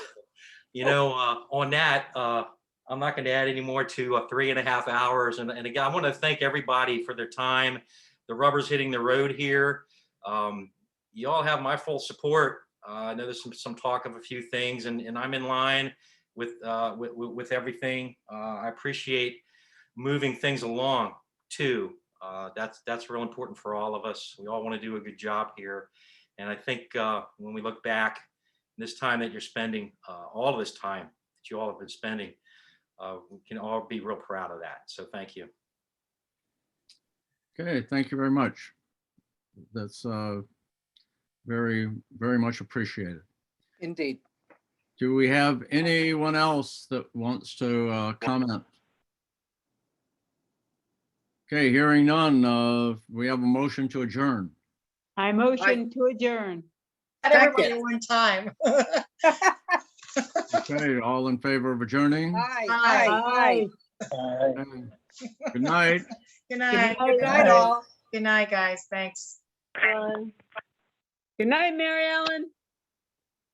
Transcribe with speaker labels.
Speaker 1: you know, uh, on that, uh, I'm not going to add any more to uh, three and a half hours. And, and again, I want to thank everybody for their time. The rubber's hitting the road here. Um, you all have my full support. Uh, I know there's some, some talk of a few things, and, and I'm in line with, uh, with, with with everything. Uh, I appreciate moving things along too. Uh, that's that's real important for all of us. We all want to do a good job here, and I think uh, when we look back, this time that you're spending, uh, all of this time that you all have been spending, uh, we can all be real proud of that. So thank you.
Speaker 2: Okay, thank you very much. That's uh, very, very much appreciated.
Speaker 3: Indeed.
Speaker 2: Do we have anyone else that wants to uh, comment? Okay, hearing none, uh, we have a motion to adjourn.
Speaker 4: I motion to adjourn.
Speaker 5: Not everybody at one time.
Speaker 2: Okay, all in favor of adjourning?
Speaker 5: Aye.
Speaker 4: Aye.
Speaker 2: Okay. Good night.
Speaker 5: Good night.
Speaker 4: Good night, all.
Speaker 5: Good night, guys. Thanks.
Speaker 4: Good night, Mary Ellen.